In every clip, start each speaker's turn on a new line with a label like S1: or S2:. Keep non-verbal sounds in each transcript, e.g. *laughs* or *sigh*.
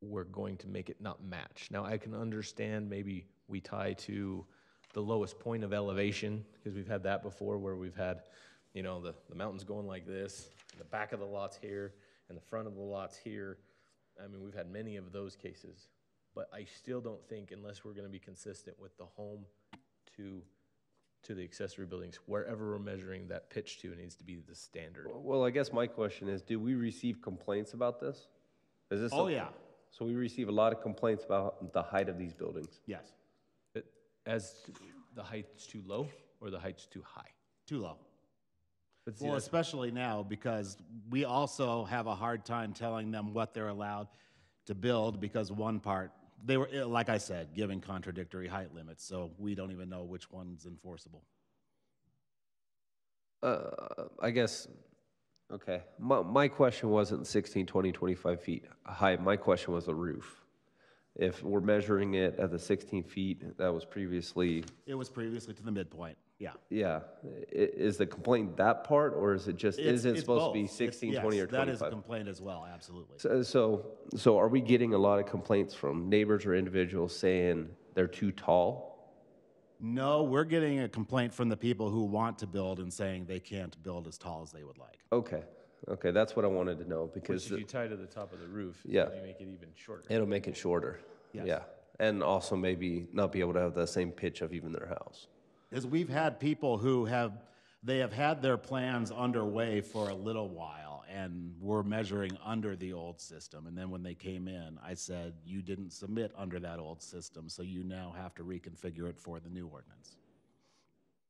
S1: we're going to make it not match. Now, I can understand maybe we tie to the lowest point of elevation, because we've had that before where we've had, you know, the, the mountains going like this, the back of the lots here, and the front of the lots here. I mean, we've had many of those cases. But I still don't think, unless we're gonna be consistent with the home to, to the accessory buildings, wherever we're measuring that pitch to, it needs to be the standard.
S2: Well, I guess my question is, do we receive complaints about this? Is this?
S3: Oh,
S2: something-
S3: yeah.
S2: So we receive a lot of complaints about the height of these buildings.
S3: Yes,
S1: It- As to the height's too low or the height's too high?
S3: too low.
S1: But see,
S3: Well,
S1: that's-
S3: especially now because we also have a hard time telling them what they're allowed to build because one part, they were, eh, like I said, giving contradictory height limits, so we don't even know which one's enforceable.
S2: Uh, I guess, okay, my, my question wasn't 16, 20, 25 feet high. My question was the roof. If we're measuring it at the 16 feet that was previously,
S3: It was previously to the midpoint, yeah.
S2: yeah, i- is the complaint that part or is it just, is
S3: It's-
S2: it
S3: it's
S2: supposed to
S3: both.
S2: be
S3: It's-
S2: 16, 20 or
S3: yes,
S2: 25?
S3: That is a complaint as well, absolutely.
S2: So- So, so are we getting a lot of complaints from neighbors or individuals saying they're too tall?
S3: No, we're getting a complaint from the people who want to build and saying they can't build as tall as they would like.
S2: Okay, okay, that's what I wanted to know because
S1: If you tie to the top of the roof, it's
S2: Yeah.
S1: gonna make it even shorter.
S2: it'll make it shorter. Yeah, and also maybe not be able to have the same pitch of even their house.
S3: is we've had people who have they have had their plans underway for a little while and were measuring under the old system and then when they came in i said you didn't submit under that old system so you now have to reconfigure it for the new ordinance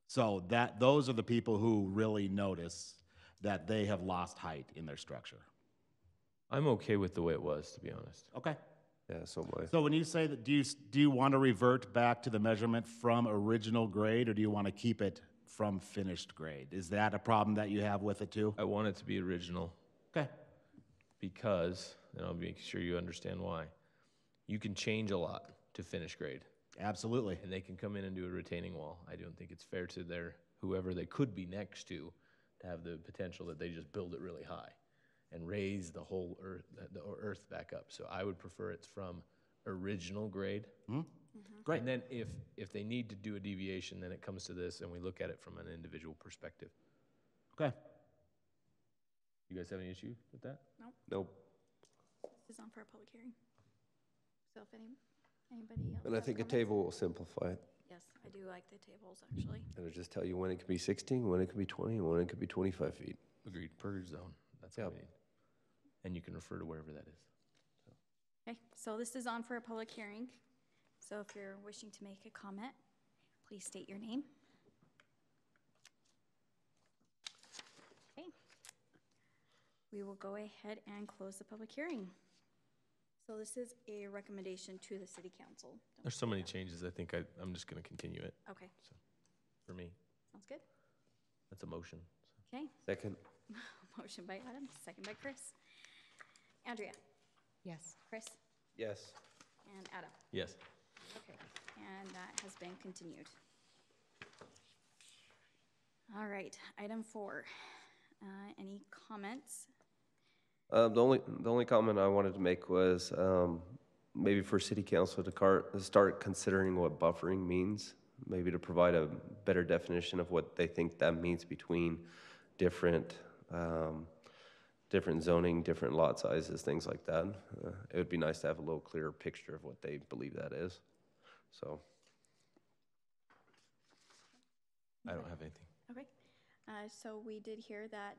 S3: so that those are the people who really notice that they have lost height in their structure
S1: I'm okay with the way it was, to be honest.
S3: okay
S2: Yeah, some way.
S3: so when you say that do you s- do you want to revert back to the measurement from original grade or do you want to keep it from finished grade is that a problem that you have with it too
S1: I want it to be original
S3: Okay.
S1: because, and I'll make sure you understand why, you can change a lot to finish grade
S3: Absolutely.
S1: and they can come in and do a retaining wall. I don't think it's fair to their, whoever they could be next to, to have the potential that they just build it really high and raise the whole earth, the earth back up. So I would prefer it's from original grade.
S3: Great.
S1: And then if, if they need to do a deviation, then it comes to this and we look at it from an individual perspective.
S3: Okay.
S1: You guys have any issue with that?
S2: Nope.
S4: This is on for a public hearing. So if any, anybody else.
S2: And I
S4: has
S2: think a
S4: comments-
S2: table will simplify it.
S4: Yes, I do like the tables, actually.
S2: It'll just tell you when it could be 16, when it could be 20, and when it could be 25 feet.
S1: Agreed. Purge zone. That's what
S2: Yep.
S1: we need. And you can refer to wherever that is.
S4: Okay, so this is on for a public hearing. So if you're wishing to make a comment, please state your name. Okay. We will go ahead and close the public hearing. So this is a recommendation to the city council.
S1: There's so many changes. I think I, I'm just going to continue it
S4: Okay,
S1: for me.
S4: sounds good.
S1: That's a motion.
S4: Okay,
S2: Second.
S4: *laughs* motion by Adam, second by Chris. Andrea,
S5: Yes.
S4: Chris,
S2: Yes.
S4: and Adam.
S1: Yes.
S4: Okay, and that has been continued. All right, item four. Uh, Any comments?
S2: Um, the only, the only comment I wanted to make was, um, maybe for city council to car, start considering what buffering means. Maybe to provide a better definition of what they think that means between different, um, different zoning, different lot sizes, things like that. Uh, It would be nice to have a little clearer picture of what they believe that is, so.
S1: I don't have anything.
S4: Okay, uh, so we did hear that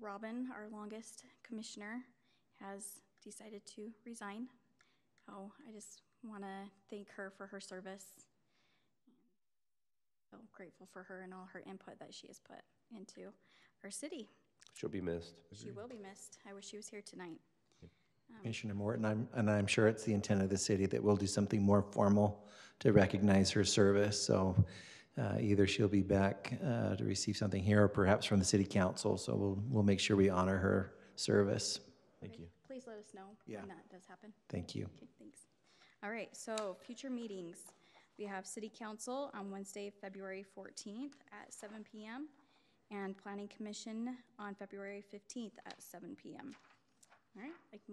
S4: Robin, our longest commissioner, has decided to resign. So I just want to thank her for her service. So grateful for her and all her input that she has put into our city.
S2: She'll be missed.
S4: She will be missed. I wish she was here tonight.
S6: Commissioner Morton, I'm, and I'm sure it's the intent of the city that we'll do something more formal to recognize her service. So uh, either she'll be back uh, to receive something here or perhaps from the city council. So we'll, we'll make sure we honor her service.
S1: Thank you.
S4: Please let us know
S6: Yeah.
S4: when that does happen.
S6: Thank you.
S4: Okay, thanks. All right, so future meetings. We have city council on Wednesday, February 14th at seven PM and planning commission on February 15th at seven PM. All right, I can